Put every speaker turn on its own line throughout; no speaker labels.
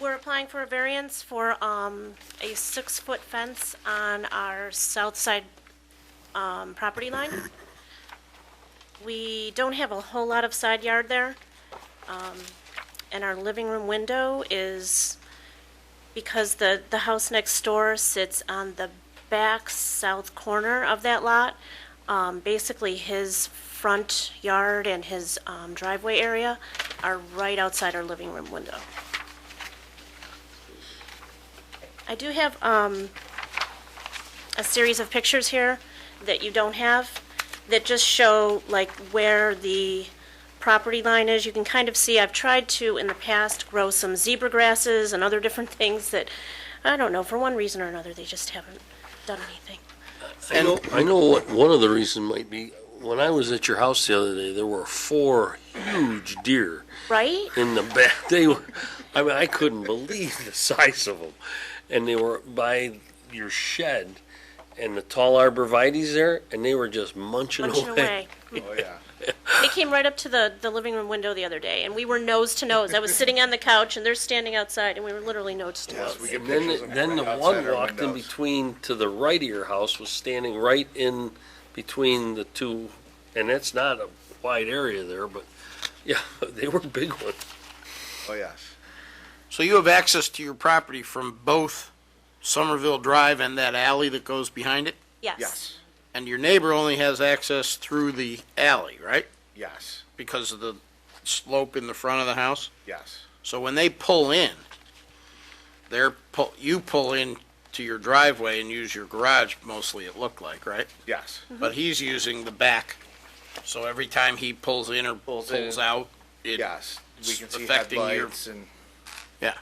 We're applying for a variance for um, a six-foot fence on our south side um, property line. We don't have a whole lot of side yard there, um, and our living room window is, because the, the house next door sits on the back south corner of that lot, um, basically his front yard and his um, driveway area are right outside our living room window. I do have um, a series of pictures here that you don't have, that just show like where the property line is. You can kind of see, I've tried to, in the past, grow some zebra grasses and other different things that, I don't know, for one reason or another, they just haven't done anything.
I know, I know what, one of the reason might be, when I was at your house the other day, there were four huge deer
Right?
in the back. They were, I mean, I couldn't believe the size of them. And they were by your shed and the tall arborvitae's there, and they were just munching away.
Punching away.
Oh, yeah.
They came right up to the, the living room window the other day, and we were nose to nose. I was sitting on the couch, and they're standing outside, and we were literally nose to nose.
Yes, we get
And then,
pictures
then the
outside
one
our
walked in
windows.
between to the right of your house was standing right in between the two, and that's not a wide area there, but yeah, they were big ones.
Oh, yes.
So you have access to your property from both Somerville Drive and that alley that goes behind it?
Yes.
Yes.
And your neighbor only has access through the alley, right?
Yes.
Because of the slope in the front of the house?
Yes.
So when they pull in, they're, pull- you pull in to your driveway and use your garage mostly, it looked like, right?
Yes.
But he's using the back, so every time he pulls in or
Pulls in.
pulls out, it,
Yes. We can see
Affecting your-
headlights and,
yeah.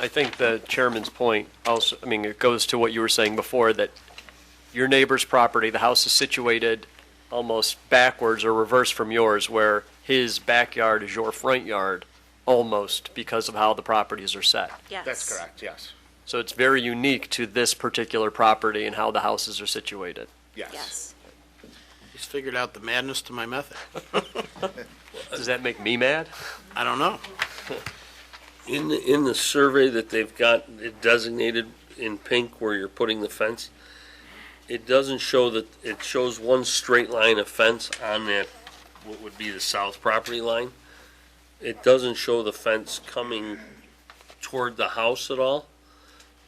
I think the chairman's point also, I mean, it goes to what you were saying before, that your neighbor's property, the house is situated almost backwards or reverse from yours, where his backyard is your front yard, almost because of how the properties are set.
Yes.
that's correct, yes.
So it's very unique to this particular property and how the houses are situated.
Yes.
Yes.
He's figured out the madness to my method.
Does that make me mad?
I don't know.
In the, in the survey that they've got it designated in pink where you're putting the fence, it doesn't show that, it shows one straight line of fence on that, what would be the south property line. It doesn't show the fence coming toward the house at all.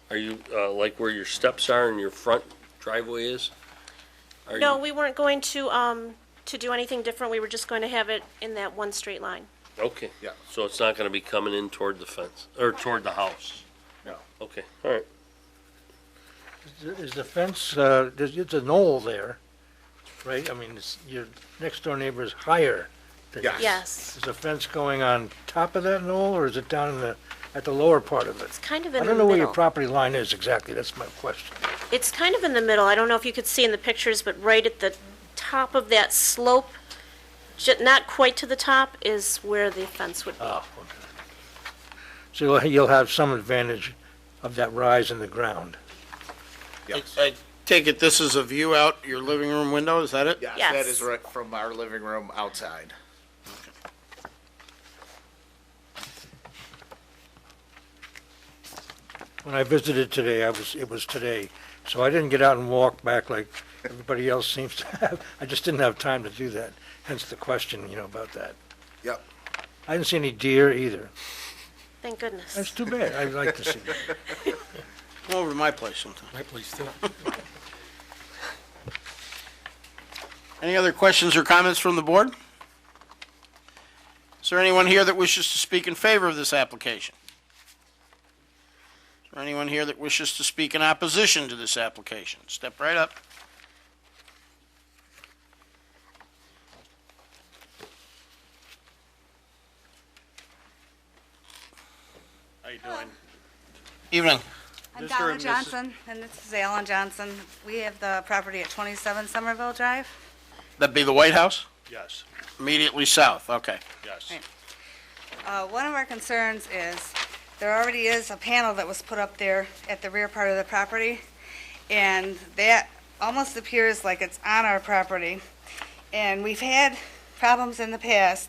Are you, uh, like where your steps are and your front driveway is? Are
No,
you-
we weren't going to, um, to do anything different. We were just going to have it in that one straight line.
Okay.
Yeah.
So it's not gonna be coming in toward the fence, or toward the house?
No.
Okay, all right.
Is the fence, uh, there's, it's a knoll there, right? I mean, it's, your next door neighbor is higher than you.
Yes.
Yes.
Is the fence going on top of that knoll, or is it down in the, at the lower part of it?
It's kind of
I
in the
don't know where your
middle.
property line is exactly, that's my question.
It's kind of in the middle. I don't know if you could see in the pictures, but right at the top of that slope, ju- not quite to the top, is where the fence would be.
Oh, okay. So you'll, you'll have some advantage of that rise in the ground.
I-
Yes.
I take it this is a view out your living room window, is that it?
Yes,
Yes.
that is right from our living room outside.
When I visited today, I was, it was today, so I didn't get out and walk back like everybody else seems to have. I just didn't have time to do that, hence the question, you know, about that.
Yep.
I didn't see any deer either.
Thank goodness.
That's too bad. I'd like to see that.
Come over to my place sometime.
My place too.
Any other questions or comments from the board? Is there anyone here that wishes to speak in favor of this application? Is there anyone here that wishes to speak in opposition to this application? Step right up. How you doing? Evening.
I'm Donna Johnson, and this is Alan Johnson. We have the property at 27 Somerville Drive.
That'd be the White House?
Yes,
Immediately south, okay.
yes.
Uh, One of our concerns is, there already is a panel that was put up there at the rear part of the property, and that almost appears like it's on our property. And we've had problems in the past